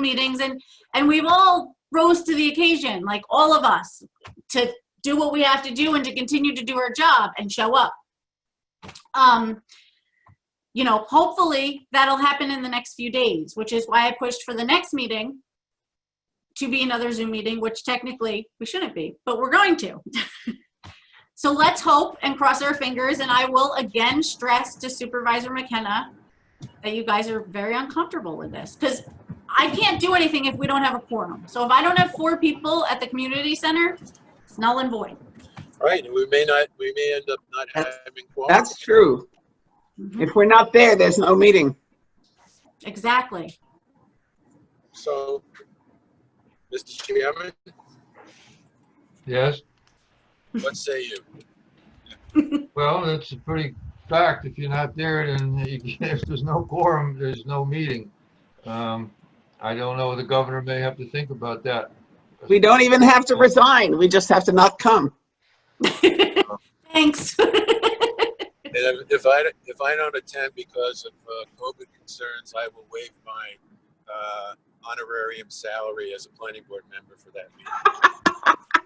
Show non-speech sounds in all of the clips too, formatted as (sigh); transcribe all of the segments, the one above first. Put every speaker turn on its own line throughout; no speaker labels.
meetings and, and we've all rose to the occasion, like all of us, to do what we have to do and to continue to do our job and show up. Um, you know, hopefully that'll happen in the next few days, which is why I pushed for the next meeting to be another Zoom meeting, which technically we shouldn't be, but we're going to. (laughs) So let's hope and cross our fingers, and I will again stress to Supervisor McKenna that you guys are very uncomfortable with this, because I can't do anything if we don't have a quorum. So if I don't have four people at the community center, it's null and void.
Right, and we may not, we may end up not having quorum.
That's true. If we're not there, there's no meeting.
Exactly.
So, Mr. Chairman,
Yes,
what say
(laughs)
you?
well, that's a pretty fact. If you're not there, then (laughs) you can't- if there's no quorum, there's no meeting. Um, I don't know, the governor may have to think about that.
We don't even have to resign. We just have to not come.
Thanks. (laughs)
And if- if I, if I don't attend because of uh, COVID concerns, I will waive my uh, honorarium salary as a planning board member for that meeting.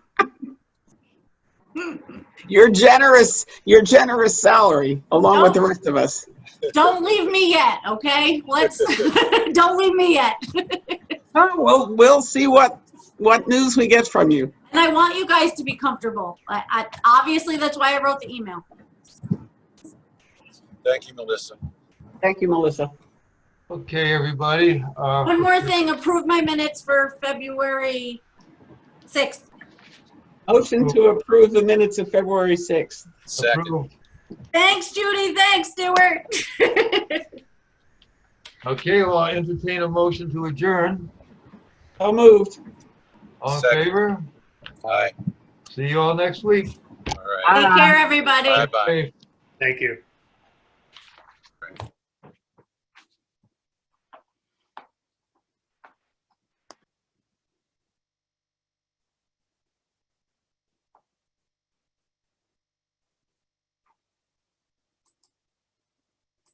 Your generous, your generous salary, along with the rest of us.
Don't leave me yet, okay? Let's, (laughs) don't leave me yet.
Oh, we'll, we'll see what, what news we get from you.
And I want you guys to be comfortable. I, I, obviously, that's why I wrote the email.
Thank you, Melissa.
Thank you, Melissa.
Okay, everybody. uh,
One more thing, approve my minutes for February 6th.
Motion to approve the minutes of February 6th.
Second,
approve.
Thanks, Judy. Thanks, (laughs) Stuart.
Okay, well, I entertain a motion to adjourn.
So moved.
All in
Second.
favor?
aye,
See you all next week.
all right,
Take care, everybody.
bye-bye.
Safe.
Thank you.